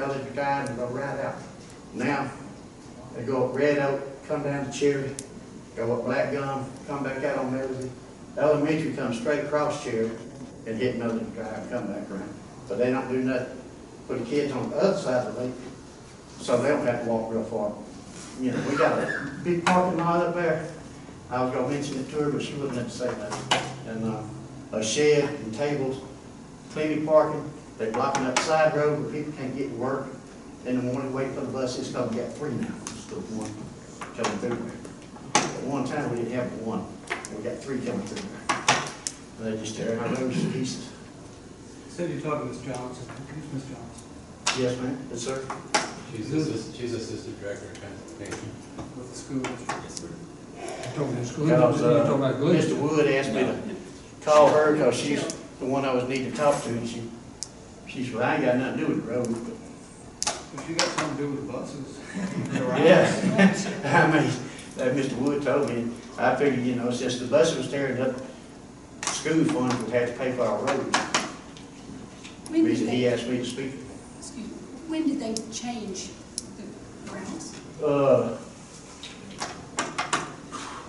Those that died and go right out. Now, they go up Red Oak, come down to Cherry, go up Black Gum, come back out on Melody. The Elementary comes straight across Cherry and hit Melody Drive, come back around. But they don't do nothing for the kids on the other side of the lake, so they don't have to walk real far. You know, we got a big parking lot up there. I was gonna mention it to her, but she wouldn't let me say that. And, uh, a shed and tables, plenty parking, they blocking up side road where people can't get to work. In the morning, wait for the bus, it's gonna get three now, instead of one coming through there. At one time, we didn't have one, we got three coming through there. And they just tear our roads to pieces. Said you talked to Ms. Johnson, who's Ms. Johnson? Yes, ma'am? Yes, sir. She's assistant, she's assistant director of transportation. With the school district. Yes, sir. Talking to the school, Because, district, you uh, talking about good. Mr. Wood asked me to call her, because she's the one I was needing to talk to, and she, she said, "Well, I ain't got nothing to do with the road, but If you got something to do with the buses. Yes, I mean, that Mr. Wood told me, I figured, you know, since the bus was tearing up, school funds would have to pay for our roads. When did Reason he they, asked me to speak. excuse me, when did they change the routes? Uh,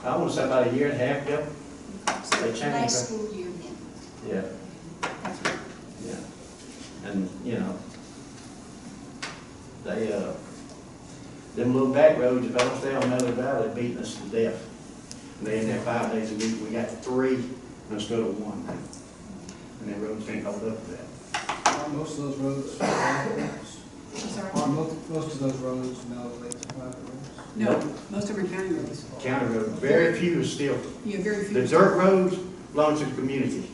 I want to say about a year and a half ago. So They changed, Last huh? school year then, Yeah. that's what, Yeah. And, you know, they, uh, them little back roads, if I don't stay on Miller Valley, beating us to death. And They in there five days a week, we got three instead of one. And them roads can't hold up to that. Aren't most of those roads private roads? I'm sorry. Aren't most, most of those roads now related to private roads? No, most of them are county roads. County roads, very few is still, You have very few. the dirt roads belong to the community.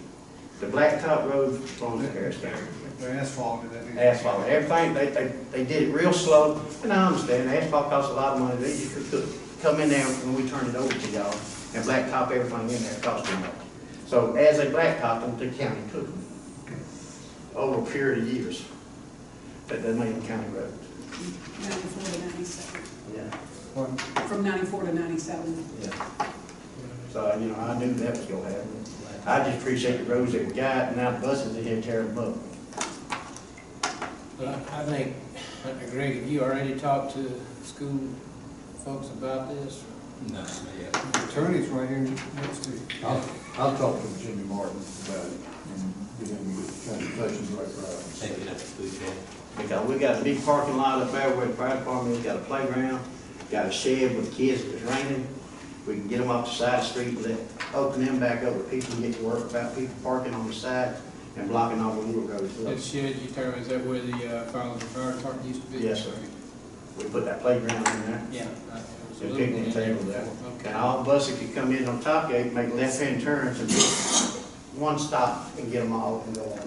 The blacktop roads belong to Harris County. They're asphalted, that means. Asphalt, everything, they, they, they did it real slow, and I understand, asphalt costs a lot of money, they, you could, could come in there when we turned it over to y'all, and blacktop everything in there cost too much. So as they blacktopped them, the county took them, over a period of years, that they made them county roads. Ninety-four to ninety-seven, Yeah. Pardon? from ninety-four to ninety-seven. Yeah. So, you know, I knew that was gonna happen, I just appreciate the roads that we got, and now the buses are here tearing them up. Well, I- I think, Dr. Greg, have you already talked to school folks about this? No, not yet. The Attorney's right here next to you. I'll, I'll talk to Jimmy Martin about it and get him to get conversations right Take for it up to food shed. Because we got a big parking lot up there where the fire department, has got a playground, got a shed with kids if it's raining. We can get them off the side street and let, open them back up where people can get to work without people parking on the side and blocking all the little roads. That up. shed you tell me, is that where the uh, Fowler Fire Department used to be? Yes, sir. We put that playground in there. Yeah. I- it was a And little picnic bit in table there. Okay. And all the buses could come in on top gate, make left-hand turns and just one stop and get them all and go on out.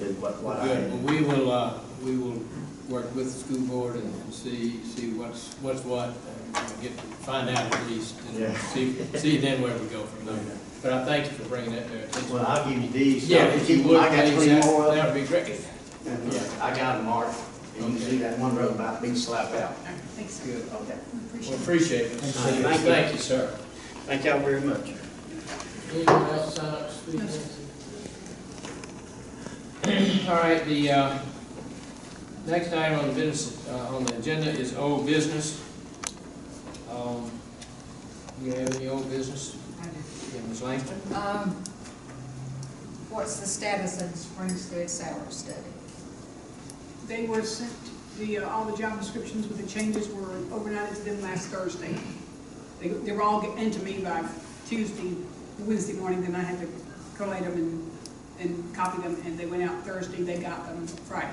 Is what, what I Good, had. well, we will, uh, we will work with the school board and and see, see what's, what's what, and uh, get, find out at least, Yeah. and see, see then where we go from there. But I thank you for bringing that to our attention. Well, I'll give you these. Yeah, if you would, I got please, three that more of them. that would be great. And, yeah, I got them marked, and you can see that one road about being slapped out. Thanks, we Good. appreciate Okay. Well, it. appreciate it. Thank you. Thank you, sir. Thank y'all very much. Anyone else sign up to speak? All right, the, uh, next item on the business, uh, on the agenda is old business. Um, you have any old business? Yeah, Ms. Langston? Um, What's the status of the Springfield salary study? They were sent, the, uh, all the job descriptions with the changes were overnighted to them last Thursday. They, they were all getting to me by Tuesday, Wednesday morning, then I had to collate them and, and copy them, and they went out Thursday, they got them Friday.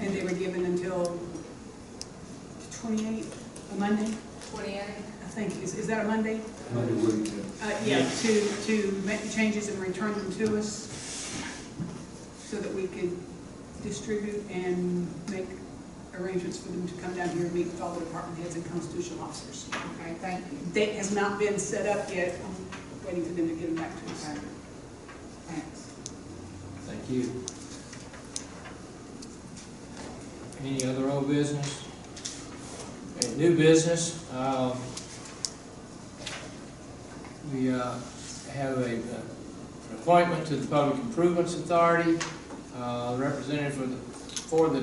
And they were given until twenty-eighth, a Monday, Twenty-eight? I think, is, is that a Monday? Monday week, yeah. Uh, yeah, to, to make the changes and return them to us so that we could distribute and make arrangements for them to come down here and meet with all the department heads and constitutional officers. Okay, thank you, Date has not been set up yet, I'm waiting for them to get them back to us. thanks. Thank you. Any other old business? Okay, new business, um, we, uh, have a, uh, an appointment to the Public Improvements Authority, uh, representative for the, for the